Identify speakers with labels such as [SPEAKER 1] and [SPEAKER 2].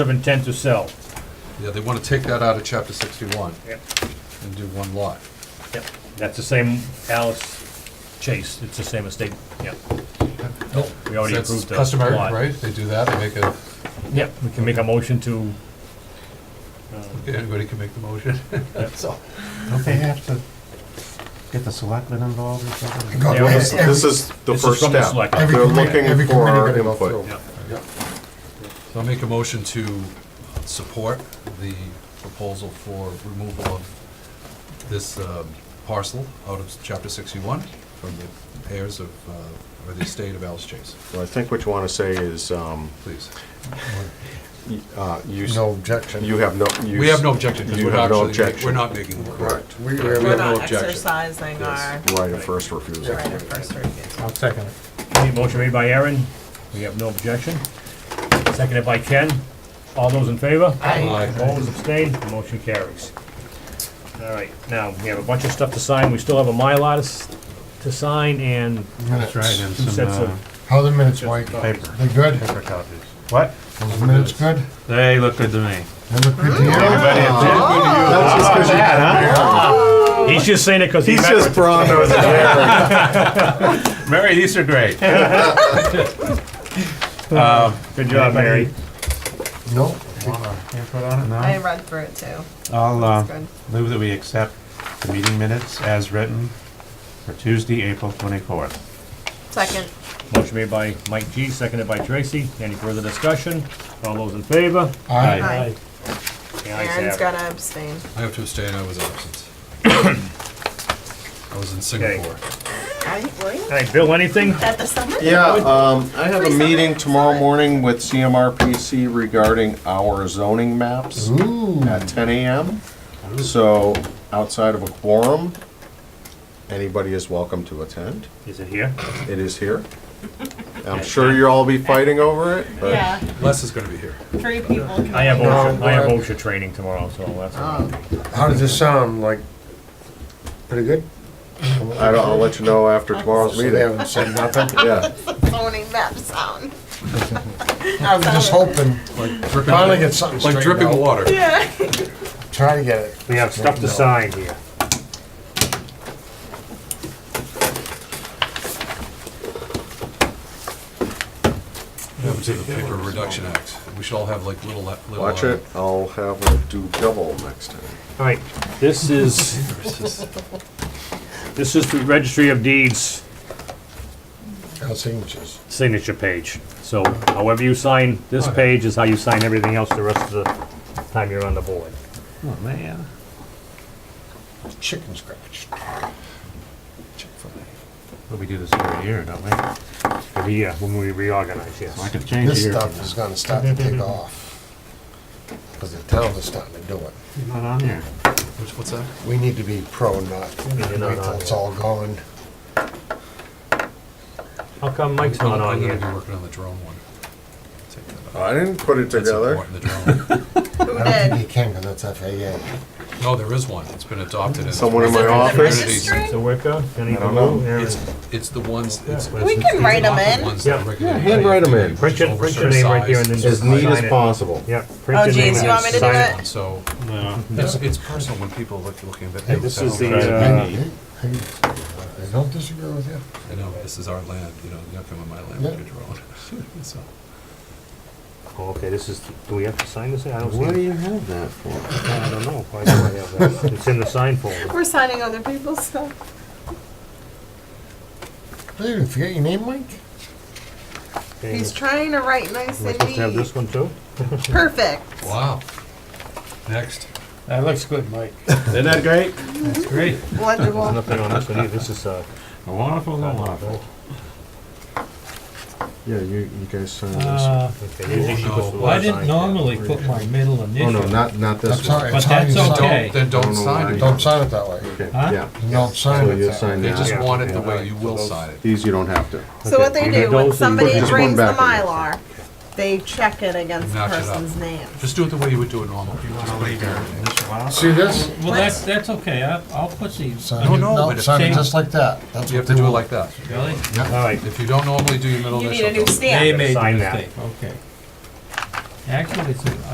[SPEAKER 1] of intent to sell.
[SPEAKER 2] Yeah, they want to take that out of chapter sixty-one
[SPEAKER 1] Yep.
[SPEAKER 2] and do one lot.
[SPEAKER 1] Yep, that's the same Alice Chase, it's the same estate, yep. We already
[SPEAKER 2] That's
[SPEAKER 1] approved the lot.
[SPEAKER 2] Customary, right? They do that, they make a,
[SPEAKER 1] Yep, we can make a motion to,
[SPEAKER 2] anybody can make the motion. So,
[SPEAKER 3] Don't they have to get the selectmen involved or something?
[SPEAKER 4] God,
[SPEAKER 1] Yeah,
[SPEAKER 4] well,
[SPEAKER 1] this-
[SPEAKER 4] This is the
[SPEAKER 1] this is
[SPEAKER 4] first
[SPEAKER 1] from the
[SPEAKER 4] step.
[SPEAKER 1] select-
[SPEAKER 4] They're
[SPEAKER 1] every
[SPEAKER 3] committee-
[SPEAKER 4] looking
[SPEAKER 3] every
[SPEAKER 4] for
[SPEAKER 3] committee
[SPEAKER 4] our
[SPEAKER 3] gotta go
[SPEAKER 4] input.
[SPEAKER 1] yeah,
[SPEAKER 2] so I'll make a motion to support the proposal for removal of this um, parcel out of chapter sixty-one from the heirs of, uh, or the estate of Alice Chase,
[SPEAKER 4] Well, I think what you want to say is, um,
[SPEAKER 2] please.
[SPEAKER 4] y- uh, you, s-
[SPEAKER 3] No objection.
[SPEAKER 4] you have no. you
[SPEAKER 2] We have no
[SPEAKER 4] s-
[SPEAKER 2] objection, because
[SPEAKER 4] you
[SPEAKER 2] we're
[SPEAKER 4] have
[SPEAKER 2] not
[SPEAKER 4] no
[SPEAKER 2] actually,
[SPEAKER 4] objection.
[SPEAKER 2] we're not making the work.
[SPEAKER 3] Correct.
[SPEAKER 2] We
[SPEAKER 3] We-
[SPEAKER 2] have
[SPEAKER 5] We're
[SPEAKER 2] no
[SPEAKER 5] not
[SPEAKER 2] objection.
[SPEAKER 5] exercising our
[SPEAKER 4] Right of first refusal.
[SPEAKER 5] right of first refusal.
[SPEAKER 3] I'll second it.
[SPEAKER 1] Any motion made by Aaron, we have no objection. Seconded by Ken, all those in favor?
[SPEAKER 2] Aye.
[SPEAKER 1] Opposed, abstained, the motion carries. All right, now, we have a bunch of stuff to sign, we still have a Mylar to s- to sign and
[SPEAKER 3] That's right, and
[SPEAKER 1] two sets
[SPEAKER 3] some
[SPEAKER 1] of,
[SPEAKER 3] uh,
[SPEAKER 6] How are the minutes, Mike?
[SPEAKER 3] paper,
[SPEAKER 6] They good?
[SPEAKER 3] paper copies. What?
[SPEAKER 6] Those minutes good?
[SPEAKER 3] They look good to me.
[SPEAKER 6] They look good to you?
[SPEAKER 1] he's just saying it because he met with-
[SPEAKER 4] brawn over
[SPEAKER 3] Mary, these are great.
[SPEAKER 1] Good job, Mary.
[SPEAKER 6] No?
[SPEAKER 3] Input on it?
[SPEAKER 5] I
[SPEAKER 3] No.
[SPEAKER 5] read through it too.
[SPEAKER 3] I'll
[SPEAKER 5] It's
[SPEAKER 3] uh,
[SPEAKER 5] good.
[SPEAKER 3] move that we accept the meeting minutes as written for Tuesday, April 24th.
[SPEAKER 5] Second.
[SPEAKER 1] Motion made by Mike G, seconded by Tracy. Any further discussion? All those in favor?
[SPEAKER 6] Aye.
[SPEAKER 5] Aye.
[SPEAKER 1] The ayes have
[SPEAKER 5] Aaron's
[SPEAKER 1] it.
[SPEAKER 5] gonna abstain.
[SPEAKER 2] I have to abstain, I was absent. I was in Singapore.
[SPEAKER 1] All right, Bill, anything?
[SPEAKER 5] At the summit?
[SPEAKER 4] Yeah, um, I have
[SPEAKER 5] Free
[SPEAKER 4] a
[SPEAKER 5] summit.
[SPEAKER 4] meeting tomorrow morning with CMRPC regarding our zoning maps
[SPEAKER 6] Ooh,
[SPEAKER 4] at ten AM. So outside of a quorum, anybody is welcome to attend.
[SPEAKER 1] Is it here?
[SPEAKER 4] It is here. I'm sure you'll all be fighting over it, but.
[SPEAKER 5] Yeah,
[SPEAKER 2] Les is gonna be here.
[SPEAKER 5] three people can.
[SPEAKER 1] I have
[SPEAKER 6] No,
[SPEAKER 1] OSHA, I have
[SPEAKER 6] we're-
[SPEAKER 1] OSHA training tomorrow, so that's all. right.
[SPEAKER 6] how does this sound? Like, pretty good?
[SPEAKER 4] I don't, I'll let you know after tomorrow's
[SPEAKER 6] So they
[SPEAKER 4] meeting.
[SPEAKER 6] haven't said nothing?
[SPEAKER 4] Yeah,
[SPEAKER 5] Zoning map sound.
[SPEAKER 6] I was just hoping,
[SPEAKER 2] Dripping-
[SPEAKER 6] finally get something
[SPEAKER 2] Like
[SPEAKER 6] straightened
[SPEAKER 2] dripping
[SPEAKER 6] out.
[SPEAKER 2] water.
[SPEAKER 5] Yeah.
[SPEAKER 6] Try to get it.
[SPEAKER 1] We have stuff to sign here.
[SPEAKER 2] Happens to the Paper Reduction Act. We should all have like little, little.
[SPEAKER 4] watch
[SPEAKER 2] uh,
[SPEAKER 4] it. I'll have her do double next time.
[SPEAKER 1] All right, this is, this is the Registry of Deeds
[SPEAKER 6] Got signatures.
[SPEAKER 1] signature page. So however you sign this page is how you sign everything else the rest of the time you're on the board.
[SPEAKER 3] Oh, man.
[SPEAKER 6] Chicken scratch.
[SPEAKER 3] But we do this every year, don't we? So
[SPEAKER 1] But yeah, when we reorganize,
[SPEAKER 3] I
[SPEAKER 1] yes.
[SPEAKER 3] could change it
[SPEAKER 6] This
[SPEAKER 3] here.
[SPEAKER 6] stuff is gonna start to take off. Cause the towns are starting to do it.
[SPEAKER 3] You're Not on here.
[SPEAKER 2] Which- What's that?
[SPEAKER 6] We need to be pro, not wait
[SPEAKER 1] You're not
[SPEAKER 6] till
[SPEAKER 1] on
[SPEAKER 6] it's
[SPEAKER 1] here.
[SPEAKER 6] all going.
[SPEAKER 1] How come Mike's
[SPEAKER 2] I'm
[SPEAKER 1] not on
[SPEAKER 2] gonna- I'm gonna
[SPEAKER 1] here?
[SPEAKER 2] be working on the drone one. Take that out.
[SPEAKER 4] I didn't put it
[SPEAKER 2] That's
[SPEAKER 4] together.
[SPEAKER 2] important, the drone.
[SPEAKER 5] Who
[SPEAKER 6] I don't think
[SPEAKER 5] did?
[SPEAKER 6] you can, cause that's FAA.
[SPEAKER 2] No, there is one. It's been adopted. in-
[SPEAKER 4] Someone in my office.
[SPEAKER 5] Registry?
[SPEAKER 1] So work out? Any-
[SPEAKER 4] I don't know.
[SPEAKER 1] Aaron.
[SPEAKER 2] It's, it's the ones, it's.
[SPEAKER 5] We can write them in.
[SPEAKER 1] Yeah.
[SPEAKER 2] Yeah,
[SPEAKER 4] handwrite 'em in.
[SPEAKER 1] Print your, print your name right here and then just
[SPEAKER 4] As
[SPEAKER 1] sign it.
[SPEAKER 4] neat as possible.
[SPEAKER 1] Yeah.
[SPEAKER 5] Oh, geez, you want me to do it?
[SPEAKER 2] So,
[SPEAKER 3] No.
[SPEAKER 2] it's, it's personal when people look, looking at.
[SPEAKER 1] Hey, this is the,
[SPEAKER 2] I
[SPEAKER 1] uh,
[SPEAKER 6] Hey, hey, I don't disagree with you.
[SPEAKER 2] know, this is our land, you know, you're not coming on my land with your drone. So,
[SPEAKER 1] Oh, Okay, this is, do we have to sign this? thing? I don't
[SPEAKER 3] What do
[SPEAKER 1] see,
[SPEAKER 3] you have that for?
[SPEAKER 1] I don't know. Why do I have that? It's in the sign folder.
[SPEAKER 5] We're signing other people's stuff.
[SPEAKER 6] Hey, you forget your name, Mike?
[SPEAKER 1] Okay,
[SPEAKER 5] He's
[SPEAKER 1] Am
[SPEAKER 5] trying to write nice
[SPEAKER 1] I
[SPEAKER 5] and
[SPEAKER 1] supposed to have
[SPEAKER 5] neat.
[SPEAKER 1] this one too?
[SPEAKER 5] Perfect.
[SPEAKER 2] Wow. Next.
[SPEAKER 3] That looks good, Mike.
[SPEAKER 4] Isn't that great?
[SPEAKER 3] Great.
[SPEAKER 1] There's
[SPEAKER 5] Wonderful.
[SPEAKER 1] nothing on this one either. This is, uh,
[SPEAKER 3] A Wonderful, a wonderful.
[SPEAKER 4] Yeah, you, you guys signed this.
[SPEAKER 7] Uh,
[SPEAKER 1] okay, usually she
[SPEAKER 2] no.
[SPEAKER 1] puts the
[SPEAKER 2] Well,
[SPEAKER 7] I
[SPEAKER 1] last
[SPEAKER 7] didn't
[SPEAKER 1] sign.
[SPEAKER 7] normally put my middle
[SPEAKER 4] Oh, no,
[SPEAKER 7] initial.
[SPEAKER 4] not, not this
[SPEAKER 6] That's all right.
[SPEAKER 4] one.
[SPEAKER 7] But
[SPEAKER 6] It's how
[SPEAKER 7] that's
[SPEAKER 6] you sign it.
[SPEAKER 7] okay.
[SPEAKER 2] Don't, then
[SPEAKER 4] Don't
[SPEAKER 2] don't
[SPEAKER 4] know
[SPEAKER 2] sign it.
[SPEAKER 4] why.
[SPEAKER 6] Don't
[SPEAKER 2] Don't-
[SPEAKER 6] sign it that way.
[SPEAKER 4] Okay,
[SPEAKER 7] Huh?
[SPEAKER 4] yeah.
[SPEAKER 6] You don't sign
[SPEAKER 4] So
[SPEAKER 6] it
[SPEAKER 4] you
[SPEAKER 6] that
[SPEAKER 4] sign
[SPEAKER 6] way.
[SPEAKER 2] They just
[SPEAKER 1] Yeah.
[SPEAKER 2] want it the way you will sign it.
[SPEAKER 4] These you don't have to.
[SPEAKER 5] So what
[SPEAKER 1] Okay,
[SPEAKER 5] they
[SPEAKER 1] you
[SPEAKER 5] do, when
[SPEAKER 1] those and
[SPEAKER 5] somebody
[SPEAKER 4] put this one
[SPEAKER 5] brings the
[SPEAKER 4] back in.
[SPEAKER 5] Mylar, they check it against the
[SPEAKER 2] Match it up.
[SPEAKER 5] person's name.
[SPEAKER 2] Just do it the way you would do it normally.
[SPEAKER 6] See this?
[SPEAKER 7] Well, that's, that's okay, I'll, I'll put these.
[SPEAKER 6] Sign
[SPEAKER 2] No,
[SPEAKER 6] it,
[SPEAKER 2] no,
[SPEAKER 6] no,
[SPEAKER 2] but if
[SPEAKER 6] sign it
[SPEAKER 7] they-
[SPEAKER 6] just like that. That's
[SPEAKER 2] You have
[SPEAKER 6] what
[SPEAKER 2] to
[SPEAKER 6] they
[SPEAKER 2] do it
[SPEAKER 6] want.
[SPEAKER 2] like that.
[SPEAKER 7] Really?
[SPEAKER 1] All right,
[SPEAKER 2] If you don't normally do your middle
[SPEAKER 5] You
[SPEAKER 2] initial.
[SPEAKER 5] need a new
[SPEAKER 2] don't.
[SPEAKER 5] stamp.
[SPEAKER 7] They made the
[SPEAKER 1] Sign that.
[SPEAKER 7] mistake, okay. Actually, it's, a-